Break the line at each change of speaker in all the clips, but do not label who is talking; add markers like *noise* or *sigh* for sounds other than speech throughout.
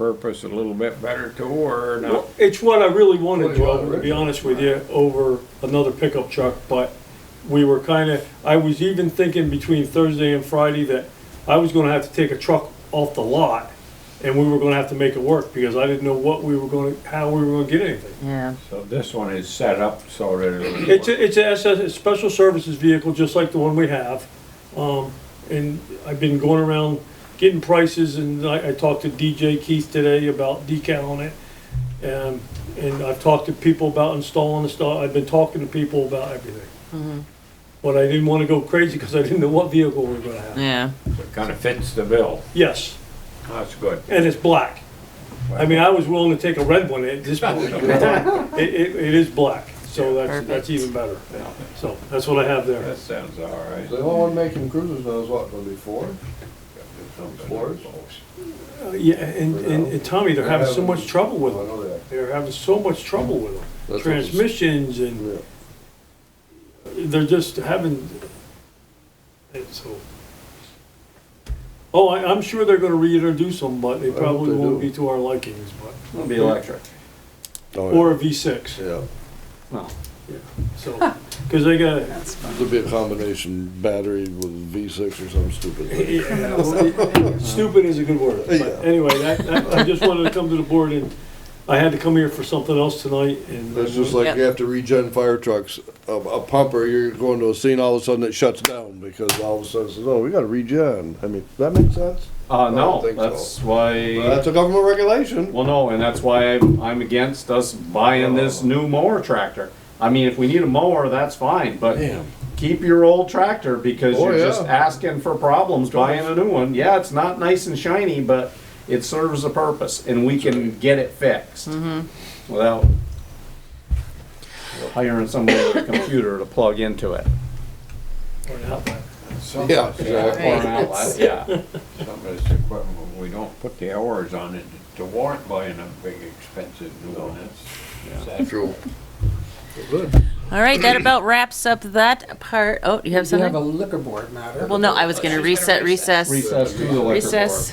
purpose a little bit better too, or not?
Well, It's what I really
Well,
wanted,
you
Joe, to
already-
be honest with you, over another pickup truck, but we were kinda, I was even thinking between Thursday and Friday that I was gonna have to take a truck off the lot, and we were gonna have to make it work, because I didn't know what we were gonna, how we were gonna get anything.
Yeah.
So this one is set up so that it'll.
*laughs* It's a, it's a SS, a special services vehicle, just like the one we have. Um, and I've been going around getting prices and I, I talked to DJ Keith today about decaling it. And, and I've talked to people about installing the stuff. I've been talking to people about everything.
Mm-hmm.
But I didn't wanna go crazy because I didn't know what vehicle we were gonna have.
Yeah.
Kind of fits the bill.
Yes,
That's
*laughs*
good.
and it's black. I mean, I was willing to take a red one at this point. It, it, it is black, so that's, that's
Perfect.
even better.
Yeah,
So that's what I have there.
That sounds all right.
The only one making cruises now is what, gonna be Ford? Explorers?
Uh, Yeah, and, and, and Tommy, they're having so much trouble with
Oh,
I
them.
know that.
They're having so much trouble with them.
That's
Transmissions and
Yeah.
they're just having, and so. Oh, I, I'm sure they're gonna reintroduce them, but they
hope
probably
they
won't
do.
be to our likings, but,
It'll be electric.
Oh,
or a V six,
Yeah,
No.
so. Cause they got,
it'd be a combination battery with V6 or something stupid. like that.
yeah, well, stupid is a good word. But
Yeah.
anyway, that, that, I just wanted to come to the board and I had to come here for something else tonight and.
It's just like
Yep.
you have to regen fire trucks. A, a pumper, you're going to a scene, all of a sudden it shuts down because all of a sudden it says, oh, we gotta regen. I mean, that makes sense.
Uh,
I
no,
don't think
that's
Well, That's
why,
a government regulation.
well, no, and that's why I'm, I'm against us buying this new mower tractor. I mean, if we need a mower, that's fine, but keep your old tractor because
Oh,
you're just
yeah.
asking for problems buying a new one. Yeah, it's not nice and shiny, but it serves a purpose and we can get it fixed. Without hiring somebody with a computer to plug into it.
Or not, but-
Yeah, exactly.
Or an outlet, yeah.
Some of this equipment, we don't put the hours on it to warrant buying a big expensive new one. That's- That's
True.
All right, that about wraps up that part. Oh, you have
You have a
something?
liquor board matter.
Well, no, I was gonna reset, recess,
Recess to the liquor board.
recess.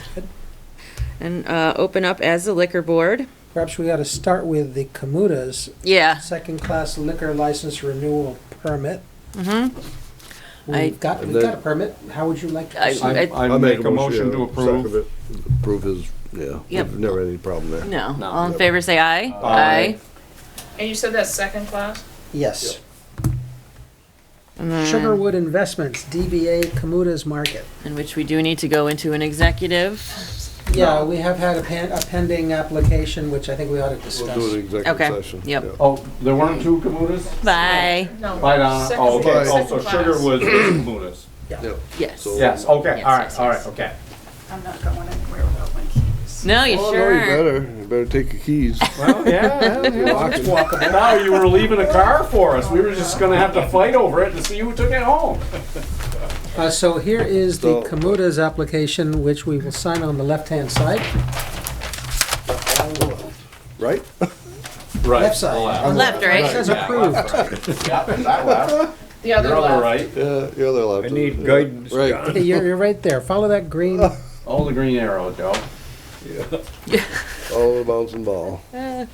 And, uh, open up as the liquor board.
Perhaps we ought to start with the Kamuta's
Yeah,
second-class liquor license renewal permit. Mm-hmm.
I-
We've got, we've got a permit. How would you like to
I-
proceed?
I, I make a motion to approve.
Second it. Approve is, yeah,
Yep.
We've never had any problem there.
no.
No.
All in favor, say aye.
Aye.
And you said that's second class?
Yes.
And then-
Sugarwood Investments, DBA Kamuta's Market.
In which we do need to go into an executive.
Yeah, we have had a pen- a pending application, which I think we ought to
We'll do
discuss.
an executive
Okay,
session.
yep.
yeah.
Oh, there weren't two Kamutas?
Bye.
No.
Bye, Donna.
Second-
Oh, okay. Oh,
second
so
class.
Sugar was Kamutas.
Yes.
So-
Yes, okay,
Yes,
all right,
yes,
all
yes.
right, okay.
I'm not going anywhere without my keys.
No, you
Oh, no, you
sure?
better, you better take your
*laughs*
keys.
Well, yeah, yeah, yeah.
Lock 'em.
Now you were leaving a car for us. We were just gonna have to fight over it to see who took it home.
Uh, so here is
So-
the Kamuta's application, which we will sign on the left-hand side.
Right?
Right.
Left side.
Left, right?
Says approved.
*laughs* Yeah, that left.
The other
You're on the
left.
right.
Yeah, you're the left.
I need guidance,
Right.
John.
Hey, You're, you're right there. Follow that green.
Oh, the green arrow, Joe.
*laughs* All the bounce and ball.
Uh,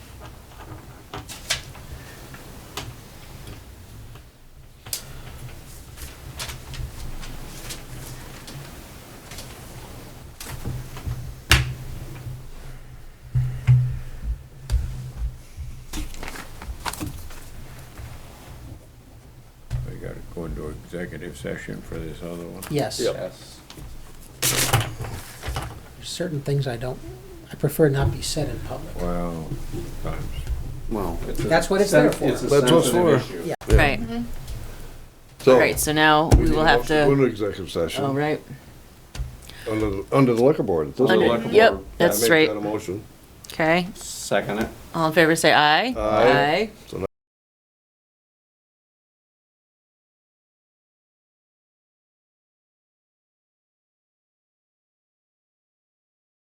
We gotta go into executive session for this other one.
Yes.
Yes.
There's certain things I don't, I prefer not be said in public.
Wow, times.
Well. it's a
That's what it's there
sen-
for.
It's a
That's what's
sensitive
for.
issue.
Right,
So.
all right, so now we
need
will
a
have
motion Go
to,
into executive session.
all right.
Under, the- under the liquor board. It
Under-
doesn't-
Liquor
Yep,
board.
Yeah,
that's
make
right.
that a motion.
Okay,
Second it.
all in favor, say aye.
Aye. So now